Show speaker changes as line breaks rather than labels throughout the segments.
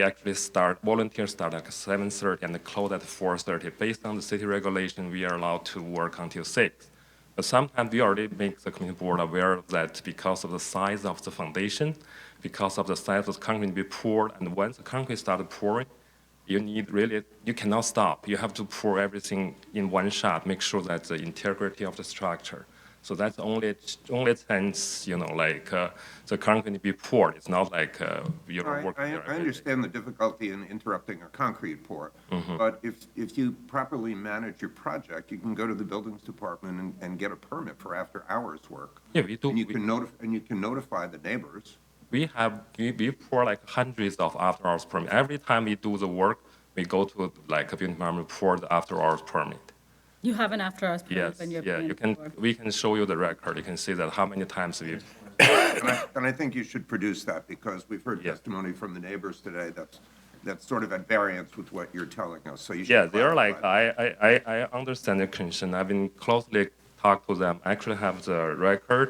We actually start volunteers start at 7:30 and close at 4:30. Based on the city regulation, we are allowed to work until six. But sometimes we already make the community board aware of that because of the size of the foundation, because of the size of the concrete we poured, and once the concrete started pouring, you need really you cannot stop. You have to pour everything in one shot. Make sure that the integrity of the structure. So that's only only chance you know like uh, the concrete be poured. It's not like uh, you
I,
don't work. there
I- I
every day.
understand the difficulty in interrupting a concrete pour,
Mm-hmm.
but if, if you properly manage your project, you can go to the buildings department and, and get a permit for after-hours work.
Yeah, we do.
And you
We-
can notify, and you can notify the neighbors.
we have we, we pour like hundreds of after hours permit. Every time we do the work, we go to like a building department pour the after hours permit.
You have an after hours permit
Yes,
when you're
yeah,
being
you can.
board.
We can show you the record. You can see that how many times we.
And I, and I think you should produce that, because we've heard
Yeah.
testimony from the neighbors today that's, that's sort of at variance with what you're telling us, so you should.
Yeah, they're like uh,
clarify.
I, I, I I understand the concern. I've been closely talked to them. I actually have the record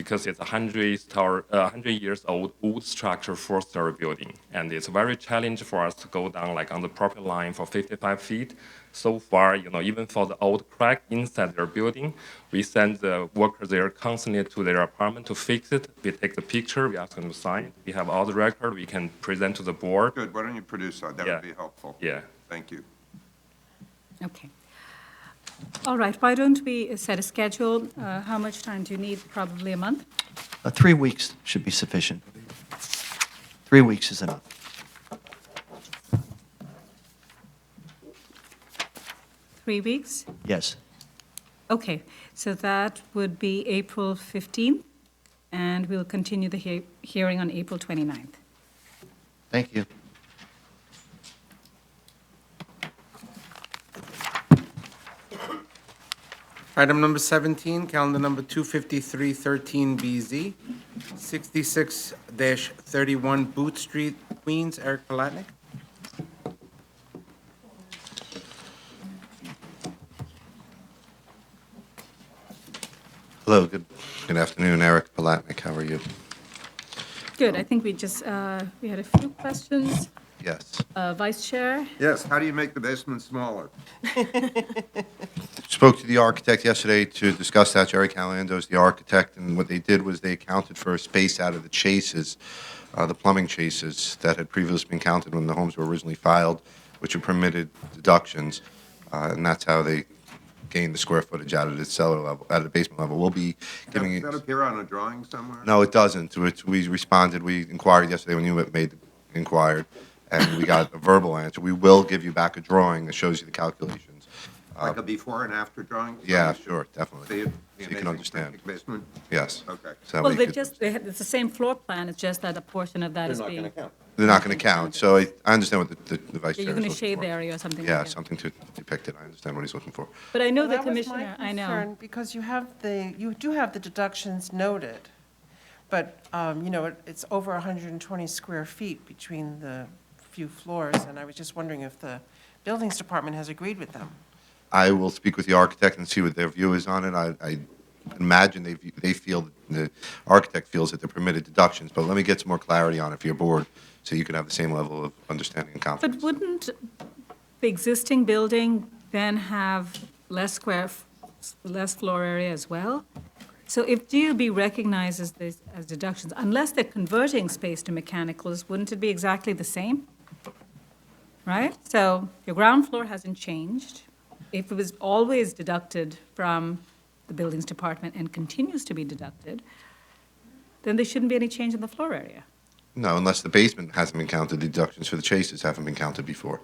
because it's a hundred tower, uh, hundred years old wood structure, four story building, and it's very challenging for us to go down like on the property line for 55 feet. So far, you know, even for the old crack inside their building, we send the workers there constantly to their apartment to fix it. We take the picture, we ask them to sign. it. We have all the record. We can present to the board.
Good, why don't you produce that? That
Yeah.
would be helpful.
Yeah.
Thank you.
Okay. All right, why don't we set a schedule? Uh, How much time do you need? Probably a month?
Uh, Three weeks should be sufficient. Three weeks is enough.
Three weeks?
Yes.
Okay, so that would be April 15th, and we'll continue the hea- hearing on April 29th.
Thank you.
Item number 17, calendar number 25313BZ, 66-31 Boot Street, Queens. Eric Palatnik.
Hello, good, good afternoon, Eric Palatnik, how are you?
Good, I think we just, uh, we had a few questions.
Yes.
Uh, Vice Chair?
Yes, how do you make the basement smaller?
Spoke to the architect yesterday to discuss that, Jerry Calando is the architect, and what they did was they accounted for a space out of the chases, uh, the plumbing chases that had previously been counted when the homes were originally filed, which are permitted deductions, uh, and that's how they gained the square footage out of the cellar level, out of the basement level. We'll be giving.
Does that appear on a drawing somewhere?
No, it doesn't. We- We responded, we inquired yesterday when you made, inquired, and we got a verbal answer. We will give you back a drawing that shows you the calculations.
Like a before and after drawing? So
Uh, Yeah,
we should
sure, definitely.
See
So
it, the
you
amazing
can understand.
Pancake basement?
Yes.
Okay.
So that way
Well,
you
they
could-
just, they had- it's the same floor plan, it's just that a portion of that is being.
They're not going to count, so I I understand what the- the the vice chair
Yeah,
is
You're going to
looking
shade
for.
the area or something like
Yeah,
that.
something to depict it. I understand what he's looking for.
But I know the
Well, that was my
commissioner, I know.
concern, Because you have the, you do have the deductions noted, but, um, you know, it- it's over 120 square feet between the few floors, and I was just wondering if the buildings department has agreed with them.
I will speak with the architect and see what their view is on it. I, I imagine they, view- they feel, the architect feels that they're permitted deductions, but let me get some more clarity on it for your board, so you can have the same level of understanding and
But
confidence.
wouldn't the existing building then have less square, f- less floor area as well? So if DUB recognizes this as deductions, unless they're converting space to mechanicals, wouldn't it be exactly the same? Right? So your ground floor hasn't changed. If it was always deducted from the buildings department and continues to be deducted, then there shouldn't be any change in the floor area.
No, unless the basement hasn't been counted, the deductions for the chases haven't been counted before.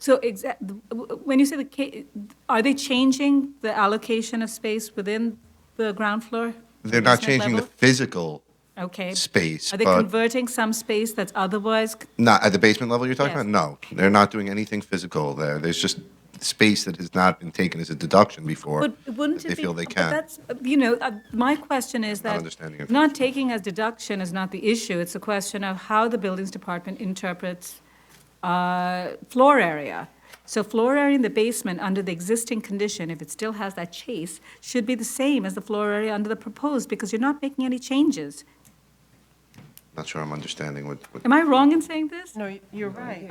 So exa- w- w- when you say the, ca- are they changing the allocation of space within the ground floor?
They're not
basement
changing the
level?
physical,
Okay.
space,
Are they
but-
converting some space that's otherwise, c-
not at the basement level you're talking
Yes.
about? No, they're not doing anything physical there. There's just space that has not been taken as a deduction before.
but wouldn't
that
it be?
They feel they
but
can.
That's, you know, uh, my question is
Not
that
understanding of-
not taking as deduction is not the issue. It's a question of how the buildings department interprets uh, floor area. So floor area in the basement, under the existing condition, if it still has that chase, should be the same as the floor area under the proposed, because you're not making any changes.
Not sure I'm understanding what. what
Am I wrong in saying this?
No, you're right.